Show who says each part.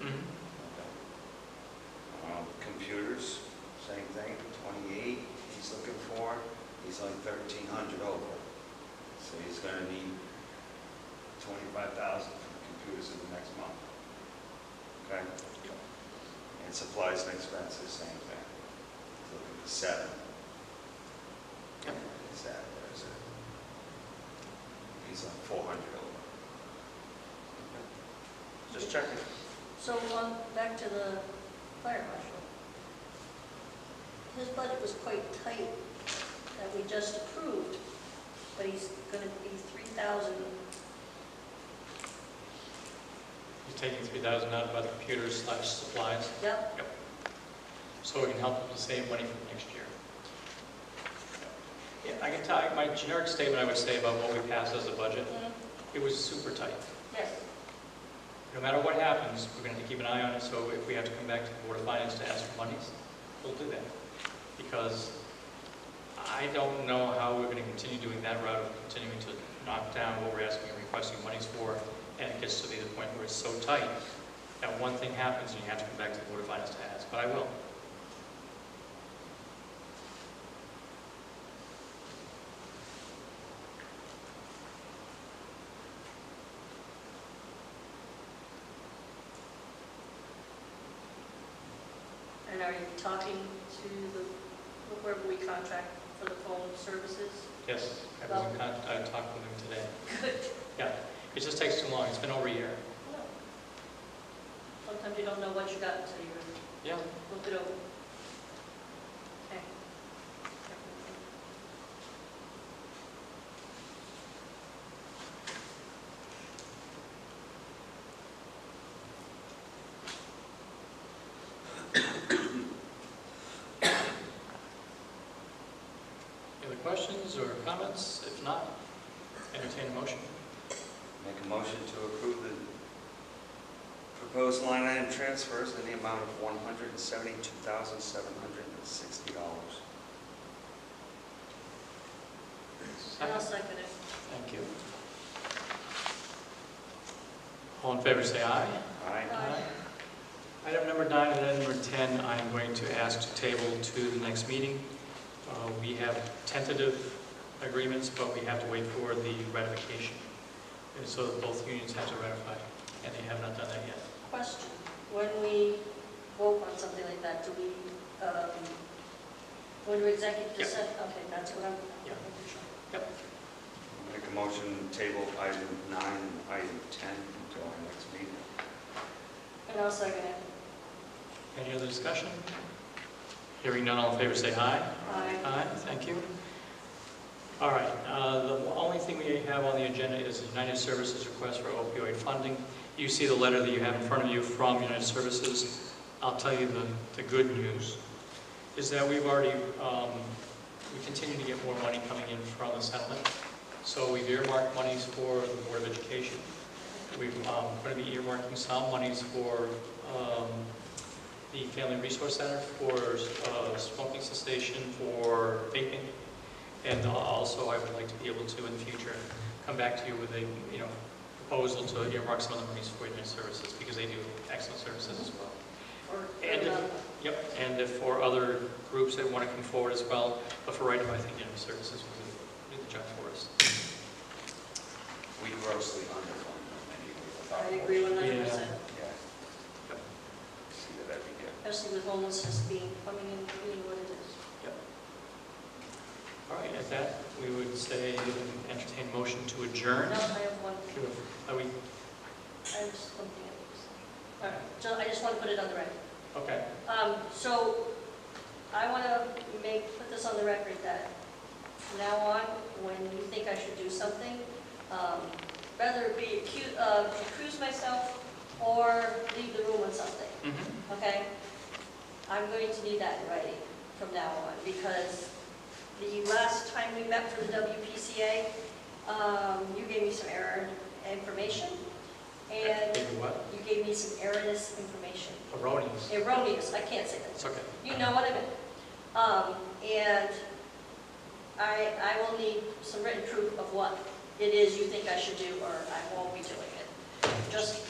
Speaker 1: Mm-hmm.
Speaker 2: Um, twenty-five thousand for computers in the next month. Okay? And supplies and expenses, same thing. Look at the seven.
Speaker 3: Yep.
Speaker 2: It's that, where is it? He's on four hundred over.
Speaker 3: Just checking.
Speaker 4: So on, back to the fire marshal. His budget was quite tight that we just approved, but he's gonna be three thousand.
Speaker 1: He's taking three thousand out of other computers slash supplies,
Speaker 4: Yep,
Speaker 1: so we can help him to save money for next year. Yeah, I can tell, my generic statement I would say about what we passed as a budget,
Speaker 4: mhm,
Speaker 1: it was super tight.
Speaker 4: yes,
Speaker 1: No matter what happens, we're gonna have to keep an eye on it, so if we have to come back to the Board of Finance to ask for monies, we'll do that. Because I don't know how we're gonna continue doing that route of continuing to knock down what we're asking and requesting monies for, and it gets to be the point where it's so tight that one thing happens and you have to come back to the Board of Finance to ask, but I will.
Speaker 4: and are you talking to the, whoever we contract for the phone services?
Speaker 1: Yes, I was in con- I talked with him today.
Speaker 4: Good.
Speaker 1: Yeah, it just takes too long, it's been over a year.
Speaker 4: No. Sometimes you don't know what you got until you
Speaker 1: Yeah,
Speaker 4: look it over. Okay.
Speaker 1: any other questions or comments? If not, entertain a motion.
Speaker 3: Make a motion to approve the proposed line item transfers in the amount of one hundred and seventy-two thousand, seven hundred and sixty dollars.
Speaker 4: And I'll second it.
Speaker 1: Thank you. All in favor, say aye.
Speaker 3: Aye.
Speaker 4: Aye.
Speaker 1: Item number nine and item number 10, I am going to ask to table to the next meeting. Uh, We have tentative agreements, but we have to wait for the ratification. And so both unions have to ratify, and they have not done that yet.
Speaker 4: Question, when we vote on something like that, do we, um, when we executive
Speaker 1: Yeah.
Speaker 4: session? Okay, that's what I'm.
Speaker 1: Yeah.
Speaker 3: Make a motion table item nine, and item 10 until our next meeting.
Speaker 4: And I'll second it.
Speaker 1: Any other discussion? Hearing none, all in favor, say aye.
Speaker 4: Aye.
Speaker 1: Aye, thank you. All right, uh, the only thing we have on the agenda is United Services' request for opioid funding. You see the letter that you have in front of you from United Services. I'll tell you the, the good news is that we've already, um, we continue to get more money coming in from the settlement. So we've earmarked monies for the Board of Education. We've, um, going to be earmarking some monies for, um, the Family Resource Center for uh, smoking cessation, for vaping, and also I would like to be able to in the future come back to you with a, you know, proposal to earmark some of the monies for their services, because they do excellent services as well.
Speaker 4: Or-
Speaker 1: And if-
Speaker 4: um,
Speaker 1: Yep, and if for other groups that want to come forward as well, but for right now, I think, you know, services will do the job for us.
Speaker 3: We grossly underfund them
Speaker 4: I
Speaker 3: anyway.
Speaker 4: agree one hundred percent,
Speaker 3: Yeah.
Speaker 1: Yep.
Speaker 3: See that every year.
Speaker 4: especially with homelessness being, coming in, being what it is.
Speaker 1: All right, at that, we would say entertain motion to adjourn.
Speaker 4: Now, I have one,
Speaker 1: Are we,
Speaker 4: I have something else. All right, so I just want to put it on the record.
Speaker 1: okay,
Speaker 4: Um, so, I want to make, put this on the record that from now on, when you think I should do something, um, rather it be accu- uh, accuse myself or leave the room on something,
Speaker 1: mhm.
Speaker 4: okay? I'm going to need that in writing from now on, because the last time we met for the WPCA, um, you gave me some error information, and
Speaker 1: Maybe what?
Speaker 4: you gave me some erroneous information.
Speaker 1: Erroneous.
Speaker 4: Erroneous, I can't say that.
Speaker 1: It's okay.
Speaker 4: You know what I mean. Um, and I, I will need some written proof of what it is you think I should do, or I won't be doing it. Just